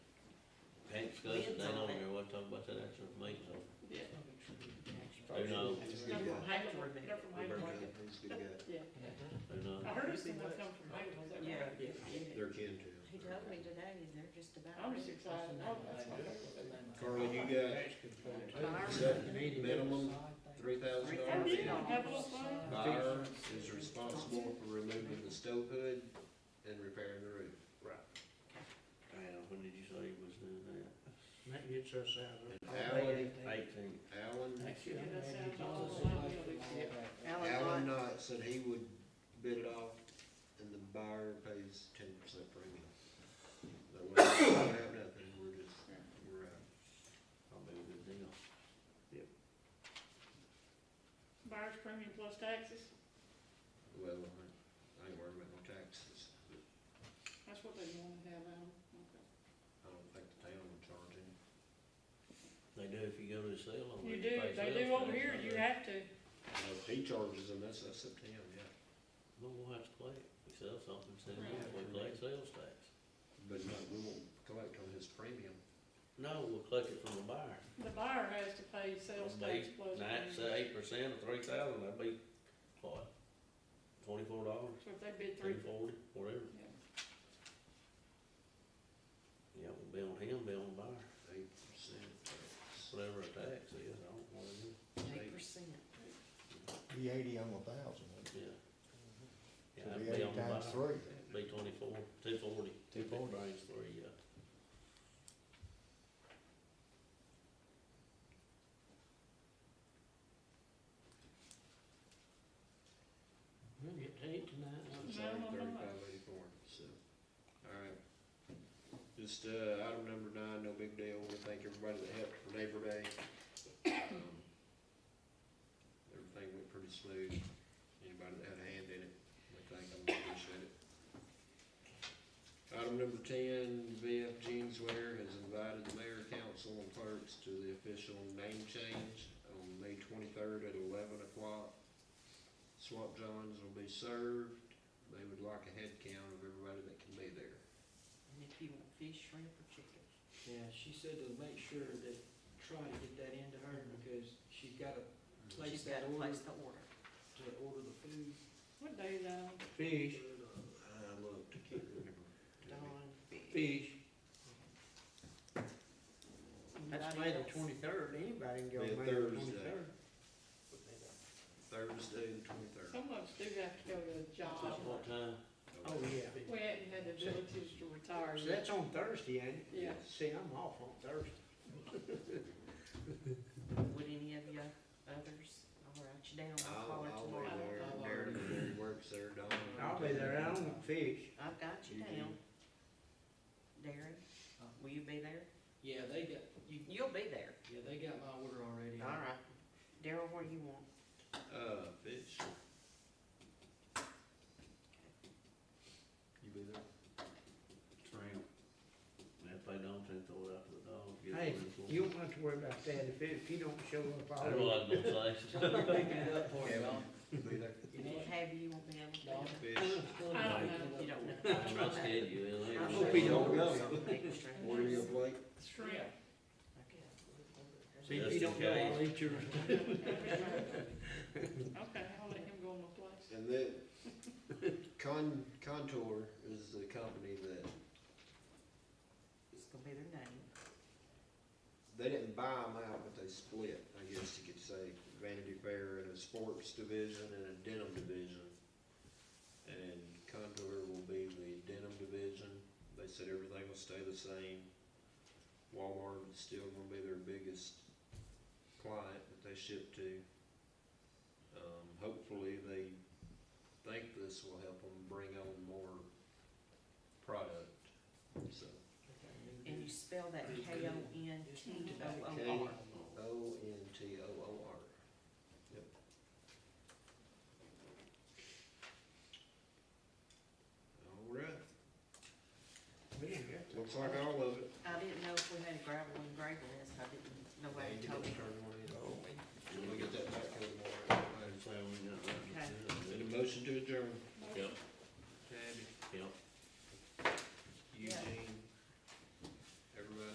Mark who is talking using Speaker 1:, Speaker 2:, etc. Speaker 1: discussed, and
Speaker 2: bids
Speaker 1: they
Speaker 2: on
Speaker 1: don't
Speaker 2: it.
Speaker 1: even want to talk about that action for me, so.
Speaker 3: Yeah.
Speaker 1: Who knows,
Speaker 4: Come from
Speaker 2: Have to
Speaker 4: Hayward,
Speaker 2: remove
Speaker 4: come
Speaker 2: it.
Speaker 4: from
Speaker 1: We're
Speaker 4: Hayward.
Speaker 1: good.
Speaker 5: He's a good guy.
Speaker 1: who knows?
Speaker 4: I heard someone come from Hayward, is that
Speaker 2: Yeah.
Speaker 4: right?
Speaker 5: They're kin to him.
Speaker 2: He told me today, and they're just about.
Speaker 4: I'm
Speaker 2: ready
Speaker 4: just
Speaker 2: to
Speaker 4: excited, oh, that's my.
Speaker 5: Carla, you got
Speaker 2: fire.
Speaker 5: is that minimum three thousand
Speaker 4: I
Speaker 5: dollars?
Speaker 4: did, have a little fun.
Speaker 5: Fire is responsible for removing the stove hood and repairing the roof. Right.
Speaker 1: Well, when did you say you was doing that?
Speaker 6: That gets us out of.
Speaker 5: Alan,
Speaker 1: Eighteen.
Speaker 5: Alan,
Speaker 6: Actually,
Speaker 4: Yeah, that sounds awful.
Speaker 5: Alan Knott said he would bid it off and the buyer pays ten percent premium. But we don't have nothing, we're just, we're out.
Speaker 1: Probably a good deal.
Speaker 4: Buyer's premium plus taxes,
Speaker 5: Well, I ain't worried about no taxes.
Speaker 4: that's what they want to have out.
Speaker 5: I don't think the town will charge any.
Speaker 1: They do if you go to the sale on.
Speaker 4: You
Speaker 1: it,
Speaker 4: do,
Speaker 1: pay
Speaker 4: they
Speaker 1: sales
Speaker 4: do over
Speaker 1: tax
Speaker 4: here,
Speaker 1: on
Speaker 4: you
Speaker 1: it.
Speaker 4: have to,
Speaker 5: Well, If he charges them, that's, that's up to him, yeah.
Speaker 1: Well, we'll have to collect, we sell something, sell it,
Speaker 4: Right.
Speaker 1: we collect sales tax.
Speaker 5: But no, we won't collect on his premium.
Speaker 1: No, we'll collect it from the buyer.
Speaker 4: the buyer has to pay sales tax plus.
Speaker 1: Nine, say eight percent of three thousand, that'd be, what, twenty-four dollars,
Speaker 4: So if they bid
Speaker 1: three
Speaker 4: three,
Speaker 1: forty, whatever.
Speaker 4: yeah.
Speaker 1: Yeah, it'll be on him, be on the buyer,
Speaker 5: Eight percent.
Speaker 1: whatever a tax is, I don't know what it is.
Speaker 2: Eight percent.
Speaker 7: Be eighty on a thousand, wouldn't
Speaker 1: Yeah.
Speaker 7: it?
Speaker 1: Yeah,
Speaker 7: So
Speaker 1: I'd
Speaker 7: be
Speaker 1: be on
Speaker 7: eighty
Speaker 1: the
Speaker 7: times
Speaker 1: buy,
Speaker 7: three.
Speaker 1: be twenty-four, two forty.
Speaker 7: 240.
Speaker 1: Brings three, uh,
Speaker 6: We'll get to eat tonight.
Speaker 4: No, no, no, no.
Speaker 5: Thirty-five eighty-four, so, alright. Just, uh, item number nine, no big deal, we thank everybody that helped for Labor Day. Um, Everything went pretty smooth, anybody that had a hand in it, we thank them, we appreciate it. Item number ten, VF Jeanswear has invited the mayor, council, and clerks to the official name change on May twenty-third at eleven o'clock. Swap Johns will be served, they would like a head count of everybody that can be there.
Speaker 2: And if you want fish, shrimp, or chicken.
Speaker 3: Yeah, she said to make sure that, try to get that into her, because she's gotta place
Speaker 2: She's
Speaker 3: that
Speaker 2: got to
Speaker 3: order
Speaker 2: place
Speaker 3: to
Speaker 2: the order.
Speaker 3: order the food.
Speaker 4: What day is that on?
Speaker 6: Fish,
Speaker 5: I looked, I can't remember.
Speaker 3: Don,
Speaker 2: Fish.
Speaker 6: fish. That's May the twenty-third, anybody can go
Speaker 5: Be a
Speaker 6: May the
Speaker 5: Thursday.
Speaker 6: twenty-third.
Speaker 5: Thursday, the twenty-third.
Speaker 4: Some of us do have to go to a job.
Speaker 1: at what time?
Speaker 6: Oh, yeah.
Speaker 4: We hadn't had the ability to retire
Speaker 6: So
Speaker 4: yet.
Speaker 6: that's on Thursday, ain't it?
Speaker 4: Yeah.
Speaker 6: See, I'm off on Thursday.
Speaker 2: Would any of you others, I'll write you down, I'll call
Speaker 5: I'll,
Speaker 2: her
Speaker 5: I'll be
Speaker 2: tomorrow.
Speaker 5: there, Darren, Darren works there, Don.
Speaker 6: I'll be there, I don't want fish.
Speaker 2: I've got you
Speaker 5: You
Speaker 2: down. Darren, will you be there?
Speaker 3: Yeah, they got, you,
Speaker 2: You'll be there.
Speaker 3: yeah, they got my order already.
Speaker 2: All right. Darryl, what do you want?
Speaker 5: Uh, fish. You be there?
Speaker 1: Shrimp. And if they don't, then throw it out to the dog. get
Speaker 6: Hey,
Speaker 1: one for
Speaker 6: you
Speaker 1: them.
Speaker 6: don't have to worry about that, if, if you don't show up,
Speaker 1: That's what I
Speaker 6: I'll.
Speaker 1: was gonna say.
Speaker 3: Pick it up for you,
Speaker 5: Yeah.
Speaker 3: Don.
Speaker 5: You be there?
Speaker 3: You know
Speaker 2: If
Speaker 3: what?
Speaker 2: Tabby, you won't be able to.
Speaker 3: Don,
Speaker 2: do
Speaker 5: Fish.
Speaker 4: I don't know.
Speaker 2: it. You don't
Speaker 1: I'm
Speaker 2: know.
Speaker 1: not scared you, is
Speaker 2: I
Speaker 1: it?
Speaker 6: hope he don't know.
Speaker 5: Order your plate.
Speaker 4: Shrimp.
Speaker 6: See,
Speaker 2: Okay.
Speaker 6: if you don't go, I'll eat yours.
Speaker 4: Okay, I'll let him go on the place.
Speaker 5: And then Con, Contour is the company that,
Speaker 2: It's gonna be their name.
Speaker 5: they didn't buy them out, but they split, I guess you could say, Vanity Fair and a sports division and a denim division. And Contour will be the denim division. They said everything will stay the same. Walmart is still gonna be their biggest client that they ship to. Um, hopefully, they think this will help them bring on more product, so.
Speaker 2: And you spell that K O N T O O R.
Speaker 5: O N T O O R. Yep. All right,
Speaker 6: We didn't get to-
Speaker 5: looks like all of it.
Speaker 2: I didn't know if we had a gravel and gravel list, I didn't, nobody
Speaker 5: Andy
Speaker 2: told me.
Speaker 5: will turn one in.
Speaker 7: Oh.
Speaker 5: We'll get that back in the morning.
Speaker 1: I'd say we got that.
Speaker 5: Need a motion to adjourn.
Speaker 1: Yep.